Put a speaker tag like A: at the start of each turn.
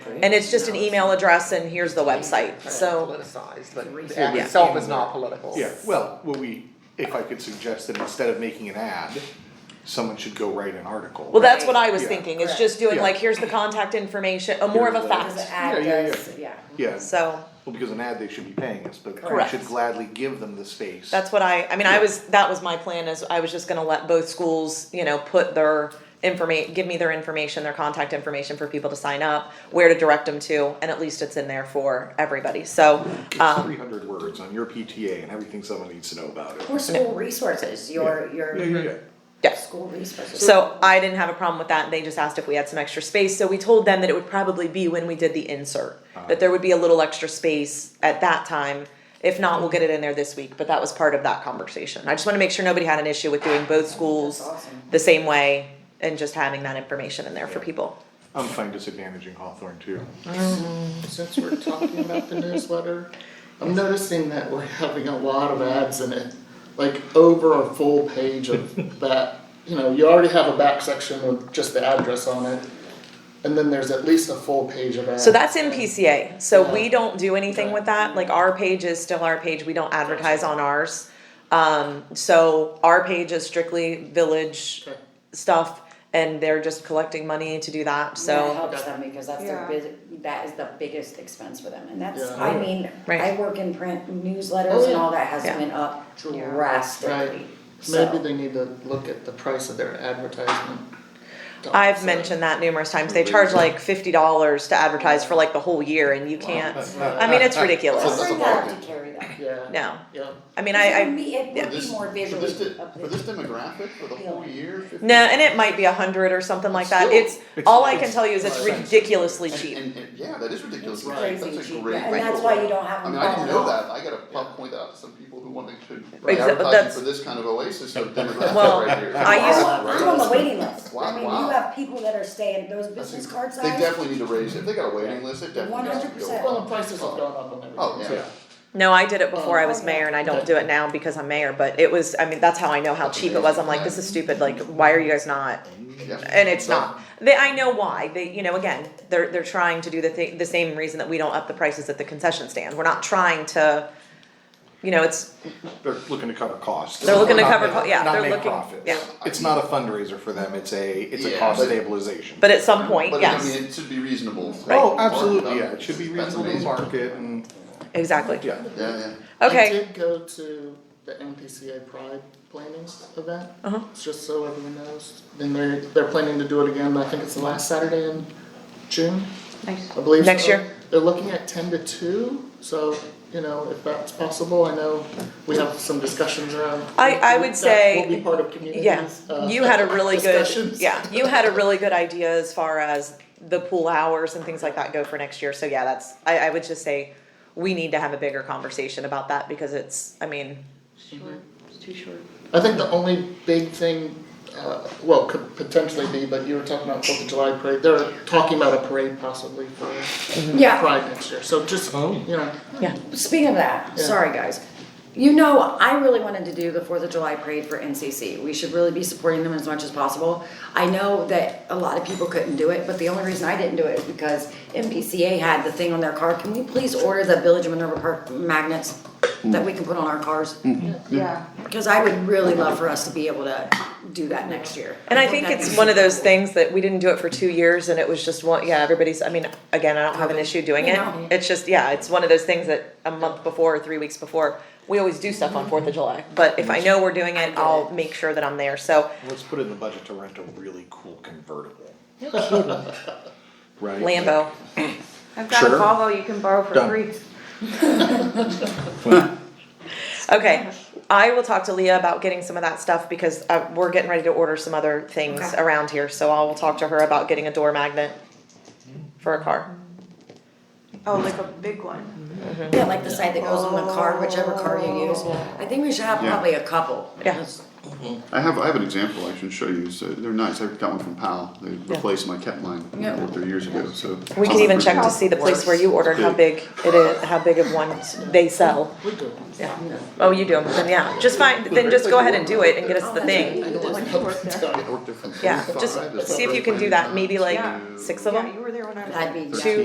A: And it's just an email address and here's the website, so,
B: Politicized, but
C: It's
B: the act
A: Yeah.
B: itself is not political.
D: Yeah, well, what we, if I could suggest that instead of making an ad, someone should go write an article.
A: well, that's what I was
D: Yeah.
A: thinking, is
C: Correct.
A: just doing
D: Yeah.
A: like, here's the contact information, a more of a
D: Here's the-
C: As an
A: fact,
C: ad
D: Yeah, yeah, yeah.
C: does, yeah.
D: Yeah,
A: so.
D: well, because an ad, they should be paying us, but we
A: Correct.
D: should gladly give them the space.
A: That's what I, I mean, I was, that was my plan is I was just gonna let both schools, you know, put their informa, give me their information, their contact information for people to sign up, where to direct them to, and at least it's in there for everybody, so,
D: It's
A: um,
D: three hundred words on your PTA and everything someone needs to know about it.
C: Or school resources, your, your.
D: Yeah, yeah, yeah.
A: yes.
C: School resources.
A: So I didn't have a problem with that, and they just asked if we had some extra space, so we told them that it would probably be when we did the insert,
C: Ah.
A: that there would be a little extra space at that time. If not, we'll get it in there this week, but that was part of that conversation. I just wanna make sure nobody had an issue with doing both schools
C: That's awesome.
A: the same way and just having that information in there for people.
D: I'm fine disadvantaging Hawthorne too.
E: Since we're talking about the newsletter, I'm noticing that we're having a lot of ads in it, like over a full page of that. You know, you already have a back section with just the address on it, and then there's at least a full page of ads.
A: So that's in PCA, so we
E: Yeah.
A: don't do anything with that, like our page is still our page, we don't advertise on ours. Um, so our page is strictly village
E: Okay.
A: stuff and they're just collecting money to do that,
C: That
A: so.
C: helps them because that's their
B: Yeah.
C: bus that is the biggest expense for them, and that's,
E: Yeah.
C: I mean,
A: Right.
C: I work in print
E: Oh,
C: newsletters and
E: yeah.
C: all that has
A: Yeah.
C: went up
B: Yeah.
C: drastically,
E: Right.
C: so.
E: Maybe they need to look at the price of their advertisement.
A: I've mentioned that numerous times, they charge like fifty dollars to advertise for like the whole year and you can't, I mean, it's ridiculous,
E: That's a
C: We're gonna have
E: bargain.
C: to carry that.
E: Yeah.
A: no,
E: Yeah.
A: I mean, I,
C: It
A: I.
C: would be- It would be more visually.
F: For this demographic, for the whole year?
A: No, and it might be a hundred or something like that.
E: Still,
A: It's all I
D: it's-
A: can tell you is it's
D: it's-
A: ridiculously
F: And,
A: cheap.
F: and, and, yeah, that is ridiculous,
C: It's
F: right,
C: crazy
F: that's a
C: cheap,
F: great.
C: yeah, and that's why you don't have
F: I
C: them
F: mean, I didn't
C: falling
F: know
C: off.
F: that, I gotta pu- point that out to some people who want, they should
A: Right,
F: be
A: exa- that's-
F: advertising for this kind of oasis of demographic
A: Well,
F: right here.
A: I
C: I'm
A: used-
C: on- I'm on the waiting list,
F: Wow,
C: I mean,
F: wow.
C: you have people that are staying, those
F: That's
C: business
F: inc-
C: card
F: They
C: signs,
F: definitely need to raise, if they got a waiting list, it definitely needs to go
C: 100%.
F: up.
E: Well, the prices have gone up on everything.
F: Oh, yeah.
A: No, I did it before I was mayor and I don't do it now because I'm mayor, but it was, I mean, that's how I know how cheap it was. I'm like, this is stupid, like, why are you guys not?
F: Yeah.
A: And it's
F: So-
A: not. They, I know why. They, you know, again, they're, they're trying to do the thing, the same reason that we don't up the prices at the concession stand. We're not trying to, you know, it's,
D: They're looking to cover costs.
A: They're looking to
D: Not
A: cover
D: make-
A: co- yeah,
D: not
A: they're
D: make
A: looking-
D: profits.
A: yeah.
D: It's not a fundraiser for them, it's a, it's a
F: Yeah,
D: cost
F: but-
D: stabilization.
A: but at some point,
F: But I
A: yes,
F: mean, it should be reasonable.
D: Oh,
F: Mark,
D: absolutely,
F: um,
D: yeah, it should be
F: that's
D: reasonable to
F: amazing.
D: market and,
A: exactly.
D: yeah.
F: Yeah, yeah.
A: Okay.
E: I did go to the NPCA Pride planning event,
A: Uh-huh.
E: just so everyone knows. And they're, they're planning to do it again, I think it's the last Saturday in June,
A: Nice.
E: I believe
A: Next
E: so.
A: year.
E: They're looking at ten to two, so, you know, if that's possible, I know we have some discussions around.
A: I- I would say-
E: That will be part of communities,
A: Yeah,
E: uh,
A: you had a really good,
E: discussions.
A: yeah, you had a really good idea as far as the pool hours and things like that go for next year, so yeah, that's, I, I would just say, we need to have a bigger conversation about that, because it's, I mean,
E: I think the only big thing, uh, well, could potentially be, but you were talking about Fourth of July parade, they're talking about a parade possibly for
C: yeah,
E: Pride next year, so just, you know,
A: yeah.
C: speaking of that,
E: Yeah.
C: sorry guys. You know, I really wanted to do the Fourth of July parade for NCC, we should really be supporting them as much as possible. I know that a lot of people couldn't do it, but the only reason I didn't do it is because MPCA had the thing on their car, can we please order the Village of Minerva Park magnets that we can put on our cars?
B: Yeah.
C: Cause I would really love for us to be able to do that next year.
A: And I think it's one of those things that we didn't do it for two years, and it was just one, yeah, everybody's, I mean, again, I don't have an issue doing it.
C: No.
A: It's just, yeah, it's one of those things that a month before or three weeks before, we always do stuff on Fourth of July, but if Mm-hmm. I know we're doing it, I'll make sure that I'm there, so,
D: Let's put in the budget to rent a really cool convertible. Right?
A: Lambo.
G: I've got a
D: Sure.
G: Volvo you can borrow for
D: Done.
G: free.
A: Okay, I will talk to Leah about getting some of that stuff because uh, we're getting ready to order some other things
C: Okay.
A: around here. So I will talk to her about getting a door magnet for a car.
G: Oh, like a big one.
C: Yeah, like the side that goes on the car, whichever car you use. I think we should have
F: Yeah.
C: probably a couple.
A: Yeah.
F: I have, I have an example I can show you, so they're nice, I got one from Powell, they replaced my cat line,
C: Yeah.
F: over three years ago, so.
A: We can even check to see the place where you ordered how big it is, how big of one they sell.
E: we do.
A: Yeah. Oh, you do them. Then yeah, just find. Then just go ahead and do it and get us the thing.
G: When you worked there.
F: Worked there from
A: Yeah, just
F: five to
A: see if you can
F: seven.
A: do that. Maybe like
G: Yeah.
A: six of
G: Yeah,
A: them.
G: you were there when I was.
C: That'd be.
A: Two